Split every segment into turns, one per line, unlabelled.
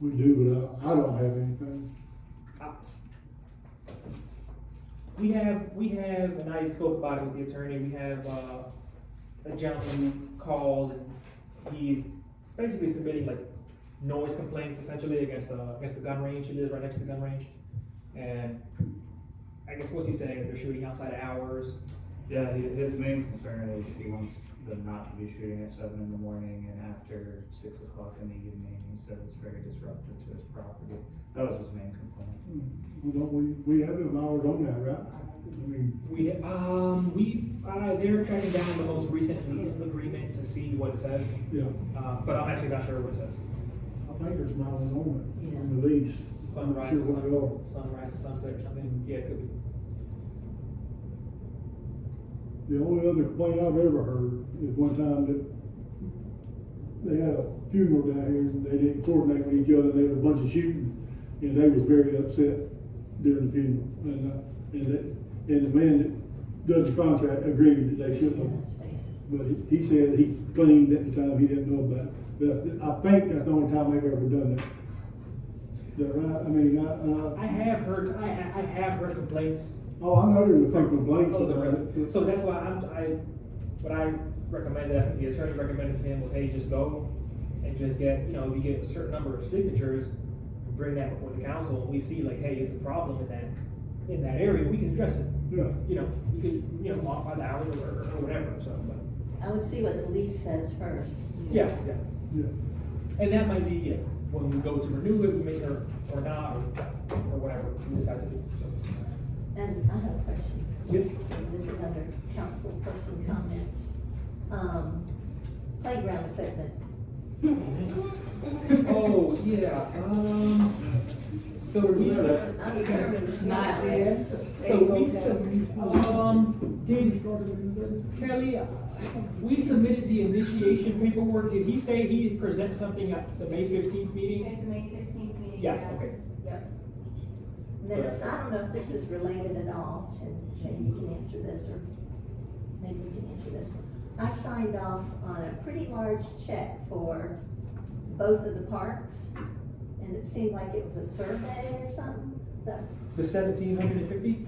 We do, but I, I don't have anything.
We have, we have, and I spoke about it with the attorney, we have, uh, a gentleman who calls and he's basically submitting like noise complaints essentially against, uh, against the gun range, he lives right next to the gun range. And I guess what's he saying, they're shooting outside of hours,
Yeah, he- his main concern is he wants them not to be shooting at seven in the morning and after six o'clock in the evening, he said it's very disruptive to his property. That was his main complaint.
Well, don't we, we have an hour on that, right? I mean,
We, um, we, uh, they're tracking down the most recent lease agreement to see what it says,
yeah,
uh, but I'm actually not sure what it says.
I think there's miles on it, on the lease. I'm not
Sunrise,
sure what they are.
sun- sunrise to sunset or something, yeah, it could be.
The only other complaint I've ever heard is one time that they had a funeral down here and they didn't coordinate with each other, and there was a bunch of shooting, and they was very upset during the funeral. And, uh, and that, and the man that does the contract agreed that they shouldn't have, but he- he said he claimed at the time he didn't know about it. But I think that's the only time they've ever done that. Is that right? I mean, I, and I,
I have heard, I, I I have heard complaints.
oh, I know there were some complaints
of Oh, the
about
president.
it.
So that's why I'm, I, what I recommended, I think the attorney recommended to him was, hey, just go and just get, you know, if you get a certain number of signatures, bring that before the council, and we see like, hey, it's a problem in that, in that area, we can address it.
Yeah.
You know, we could, you know, modify the hours or, or or whatever, so, but,
I would see what the lease says first.
yeah, yeah.
Yeah.
And that might be, yeah, when we go to renew it, we make it or, or not, or, or whatever we decide to do, so.
And I have a question.
Yep.
This is under council person comments. Um, playground equipment.
Oh, yeah, um, so we, s-
I'm determined it's not there.
so we, sub- um, did Kelly, uh, we submitted the initiation paperwork, did he say he'd present something at the May fifteenth meeting?
It's May fifteenth meeting.
Yeah, okay,
Then, I don't know if this is related at all, and Shane, you can answer this, or maybe you can answer this one. I signed off on a pretty large check for both of the parks, and it seemed like it was a survey or something. So
the seventeen hundred and fifty?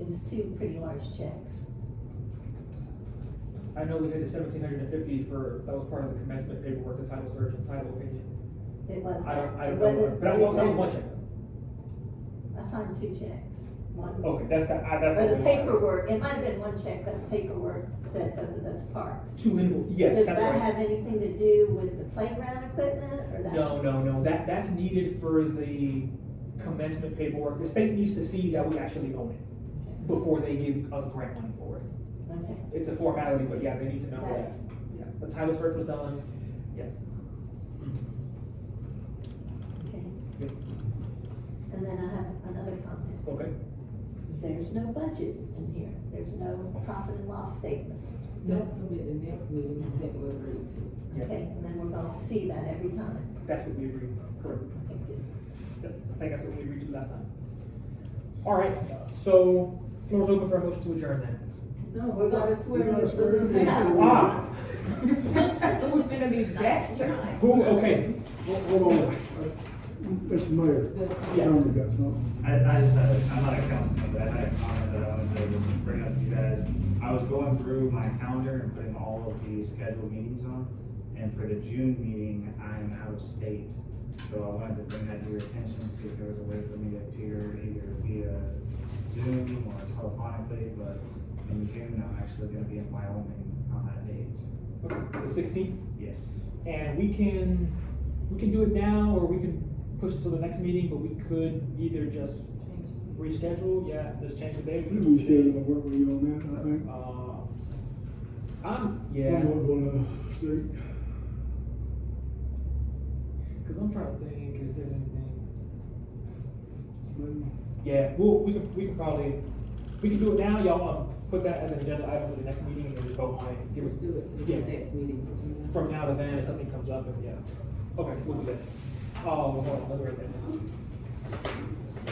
it was two pretty large checks.
I know we had the seventeen hundred and fifty for, that was part of the commencement paperwork, the title search and title opinion.
It was.
I don't, I
it
don't know,
wasn't-
but that's one, that was one check,
I signed two checks. One, or
okay, that's the, I, that's the.
the
only one.
paperwork, it might have been one check, but the paperwork said both of those parks.
Two invo, yes,
Does
that's
that
right.
have anything to do with the playground equipment, or that's?
No, no, no, that, that's needed for the commencement paperwork, the state needs to see that we actually own it before they give us grant money for it.
Okay,
It's a formality, but yeah, they need to know that,
that's,
yeah, the title search was done,
okay.
Good.
And then I have another comment.
okay?
There's no budget in here. There's no profit and loss statement.
That's gonna be the next meeting that we'll read to.
Yeah.
Okay, and then we're gonna see that every time.
That's what we agreed, correct,
Okay, good.
I think that's what we agreed to last time. All right, so, floor's open for a motion to adjourn then.
No,
we're gonna
swear in.
Ah,
It was gonna be
That's right.
who, okay,
Hold on, Mr. Mayor,
Yeah.
Tony got something.
I, I just had, a- I'm not a councilman, but I had a comment that I wanted to bring up to you guys. I was going through my calendar and putting all of the scheduled meetings on, and for the June meeting, I'm out of state. So I wanted to bring that to your attention, see if there was a way for me to appear either via Zoom or telephonically, but in June, I'm actually gonna be in Wyoming on that date.
okay, the sixteenth,
Yes.
and we can, we can do it now, or we can push it to the next meeting, but we could either just reschedule, yeah, just change the date.
We was scheduled to work with you on that, I think.
Uh, I'm,
I'm
yeah,
not gonna speak.
cause I'm trying to think, is there anything?
Maybe.
Yeah, we'll, we can, we can probably, we can do it now, y'all wanna put that as an agenda item for the next meeting and then just vote on it, give
Let's
us,
do it,
Yeah.
the next meeting.
from now to then, if something comes up, and yeah. Okay, we'll do that. Oh, hold on, let me write that down.
Hmm.